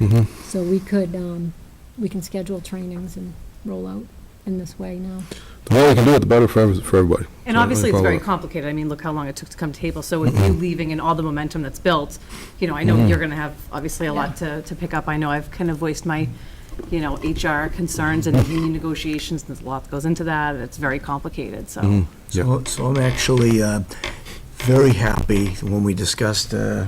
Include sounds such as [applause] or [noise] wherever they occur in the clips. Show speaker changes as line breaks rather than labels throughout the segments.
Mhm.
So we could, um, we can schedule trainings and roll out in this way now.
The more we can do it, the better for every- for everybody.
And
So,
obviously, it's
follow
very
up.
complicated. I mean, look how long it took to come table. So with you leaving and all the momentum that's built, you know, I know you're going to have obviously a lot to, to pick up. I know I've kind of voiced my, you know, HR concerns and union negotiations, and a lot goes into that, and it's very complicated, so.
Yeah.
So, so I'm actually uh, very happy when we discussed uh,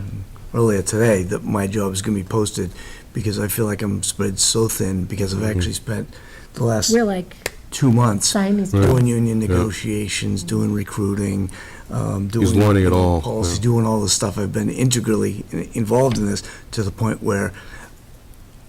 earlier today that my job is going to be posted because I feel like I'm spread so thin because I've actually spent the last
We're like
two months
Siamese.
Right.
doing union negotiations, doing recruiting, um, doing.
learning it all,
Policy,
yeah.
doing all this stuff. I've been integrally in- involved in this to the point where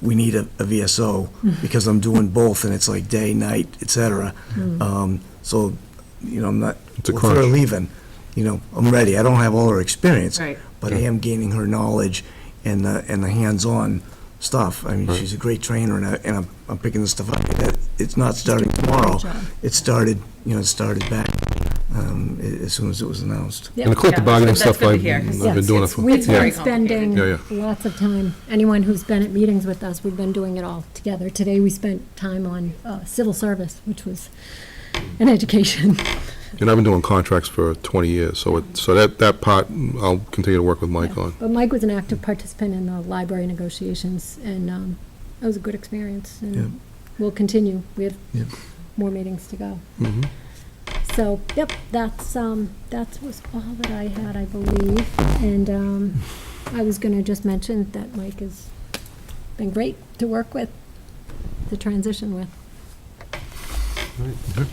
we need a,
[laughs]
a VSO because I'm doing both and it's like day, night, et cetera. Um, so, you know, I'm not.
Hmm. It's a
with her
crunch.
leaving, you know, I'm ready. I don't have all her experience.
Right.
But I am gaining her knowledge and the, and the hands-on stuff. I mean, she's a great trainer and I, and I'm, I'm picking this stuff up. That- It's not starting tomorrow.
job.
It started, you know, it started back, um, a- as soon as it was announced.
And the collective
Yeah,
bargaining
that's- that's
stuff,
good to
I've
hear, 'cause
I've been
it's-
doing it
it's-
for.
we-
We've
It's very
been spending
Yeah, yeah.
lots of time, anyone who's been at meetings with us, we've been doing it all together. Today, we spent time on uh, civil service, which was an education. [laughs]
And I've been doing contracts for 20 years, so it, so that, that part, I'll continue to work with Mike on.
But Mike was an active participant in the library negotiations, and um, that was a good experience.
Yeah.
And we'll continue. We have
Yeah.
more meetings to go.
Mm-hmm.
So, yep, that's, um, that was all that I had, I believe. And um, I was going to just mention that Mike has been great to work with, to transition with.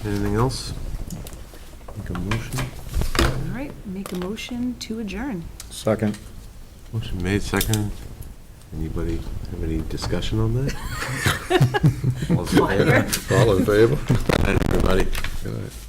Anything else? Make a motion.
All right, make a motion to adjourn.
Second.
Motion made, second. Anybody have any discussion on that? All those in favor?
All in favor?
Everybody.
Good night.